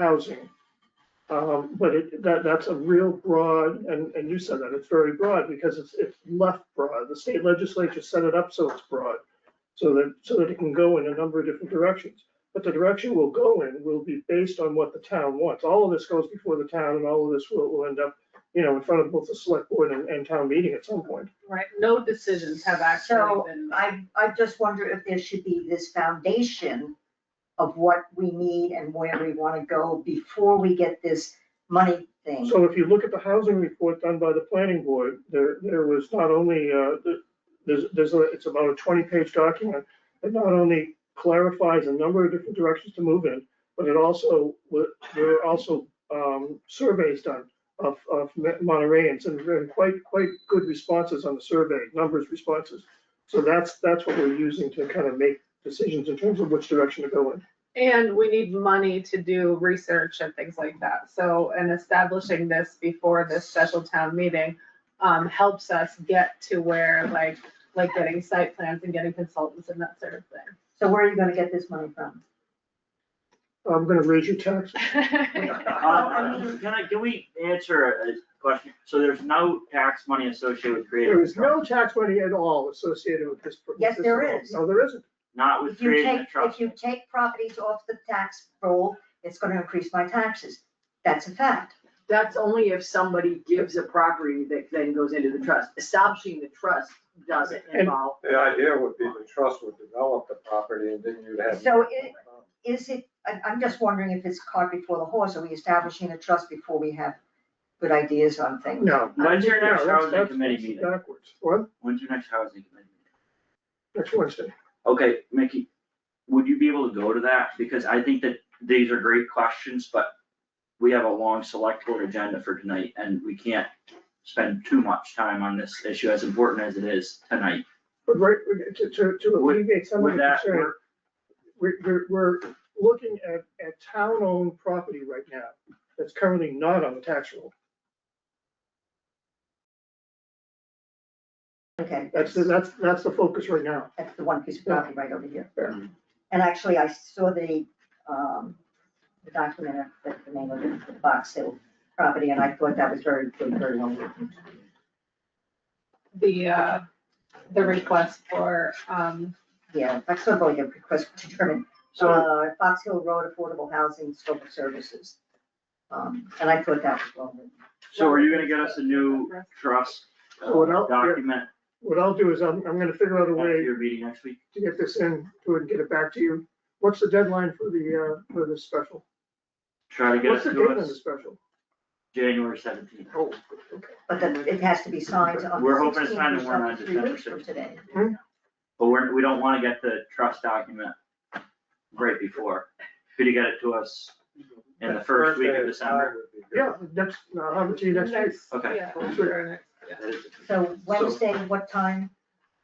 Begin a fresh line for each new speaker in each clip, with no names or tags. housing. Um, but it, that, that's a real broad, and, and you said that, it's very broad because it's, it's left broad. The state legislature set it up so it's broad. So that, so that it can go in a number of different directions. But the direction we'll go in will be based on what the town wants. All of this goes before the town and all of this will, will end up, you know, in front of both the select board and, and town meeting at some point.
Right, no decisions have actually
So,
been made.
I, I just wonder if there should be this foundation of what we need and where we wanna go before we get this money thing.
So if you look at the housing report done by the planning board, there, there was not only, uh, the- there's, there's, a- it's about a twenty-page document that not only clarifies a number of different directions to move in, but it also, wa- there were also um, surveys done of, of Ma- Montereyans and very quite, quite good responses on the survey, numbers responses. So that's, that's what we're using to kind of make decisions in terms of which direction to go in.
And we need money to do research and things like that. So, and establishing this before this special town meeting um, helps us get to where like, like getting site plans and getting consultants and that sort of
So where are you gonna get this money from?
I'm gonna raise your taxes.
thing.
Uh, Can I, can we answer a question? So there's no tax money associated with creative
There is
construction?
no tax money at all associated with this. with
Yes,
this
there
at all.
is.
No, there isn't.
Not with
If you
creating
take,
a
if
trust.
you take properties off the tax roll, it's gonna increase my taxes. That's a fact.
That's only if somebody gives a property that then goes into the trust. Establishing the trust doesn't
And-
involve.
The idea would be the trust would develop the property and then you'd have.
So it- Is it, I, I'm just wondering if it's cart before the horse, are we establishing a trust before we have good ideas on things?
No.
When's your
No,
next
that's-
housing
that's-
committee
that's
meeting?
Backwards. What?
When's your next housing committee?
Next Wednesday.
Okay, Mickey, would you be able to go to that? Because I think that these are great questions, but we have a long select board agenda for tonight and we can't spend too much time on this issue as important as it is tonight.
But right, we- to, to, to
Would-
alleviate some of
Would
the
that
concern,
work?
we're, we're, we're looking at, at town-owned property right now that's currently not on the tax roll.
Okay.
That's, the- that's, that's the focus right now.
That's the one piece of property right over here.
Yeah.
Mm-hmm.
And actually, I saw the, um, the document, of the, the name of it, the Box Hill property, and I thought that was very, good, very well. written.
The, uh, the request for, um,
Yeah, I saw all your request to determine,
So,
uh, Fox Hill Road Affordable Housing Scope of Services. Um, and I thought that was well. written.
so are you gonna get us a new trust uh,
Well, no, yeah.
document
What I'll do is I'm, I'm gonna figure out a
at
way
your meeting next week?
to get this in, to and get it back to you. What's the deadline for the, uh, for this special?
Try to get it
What's the
to
date on the
us
special?
January seventeenth.
Oh, okay.
But then it has to be signed on
We're
the
hoping it's
sixteenth,
signed
which
and we're
is
not
three weeks
December
from today.
But we're, we don't wanna get the trust document right before. Could you get it to us in the first week of December?
Yeah, next, I'll have it to you next week.
next,
Okay.
yeah, sure, next, yeah.
That is-
So Wednesday, what time?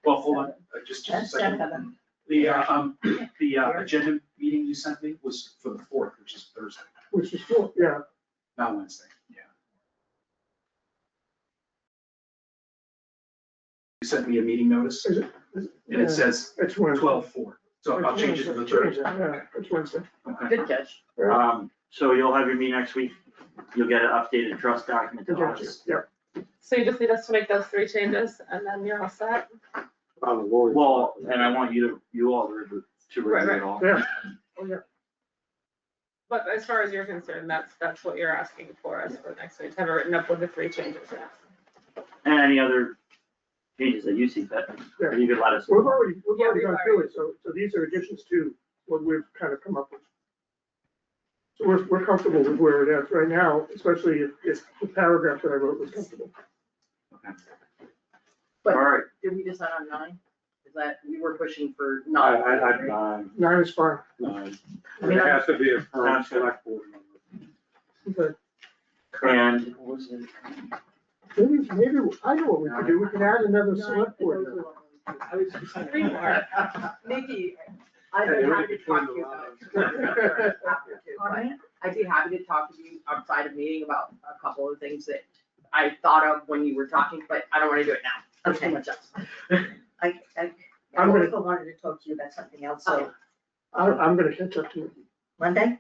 Well, hold on, uh, just, just a
That's
second.
seven.
The, uh, um, the uh, agenda meeting you sent me was for the fourth, which is Thursday,
Which is cool, yeah.
not Wednesday, yeah. You sent me a meeting notice,
Is it-
and it says
It's Wednesday.
twelve four, so I'll change it to the Oh,
Change it,
Thursday.
Yeah, it's Wednesday.
Okay.
Good catch.
Um, so you'll have your meeting next week. You'll get an updated trust document to us.
Yeah,
So you just need us to make those three changes and then you're all set?
On the Lord's.
Well, and I want you to, you all to review to review it all.
yeah.
But as far as you're concerned, that's, that's what you're asking for us for next week, to have it written up with the three changes, yeah.
And any other changes that you see fit,
Yeah.
you could let us.
We've already, we've
Yeah,
already
we've
gone through it, so, so these are additions to what we've kind of come up with. So we're, we're comfortable with where it is right now, especially if, if the paragraph that I wrote was comfortable.
All
But
right,
did we decide on nine? Is that, we were pushing for
I,
nine.
I,
right?
I'd, um,
Nine is fine,
um, it has to be a firm
Sounds good.
select board member.
Okay.
and what was it?
maybe, maybe, I know what we could do, we can add another select board member.
I was just saying.
Three more.
Nikki, I'd be happy to talk to you about it. After too, but I'd be happy to talk to you outside of meeting about a couple of things that I thought of when you were talking, but I don't wanna do it now. There's too
Okay.
much else.
I, I, I
I'm gonna-
also wanted to talk to you about something else, so
I, I'm gonna catch up to you.
Monday?